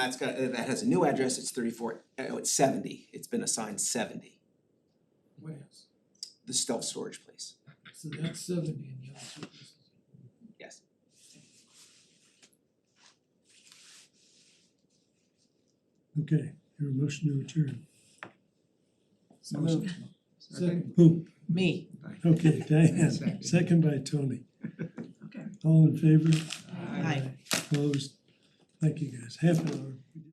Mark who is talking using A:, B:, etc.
A: That's got, uh, that has a new address, it's thirty-four, uh, oh, it's seventy, it's been assigned seventy,
B: warehouse.
A: the self-storage place.
B: So that's seventy and the other services.
A: Yes.
C: Okay, your motion to return.
B: So
D: moved.
B: Second,
C: Who?
D: Me.
C: Okay, Diane,
D: Second.
C: second by Tony.
D: Okay.
C: All in favor?
D: Aye.
C: Opposed? Thank you guys. Half an hour.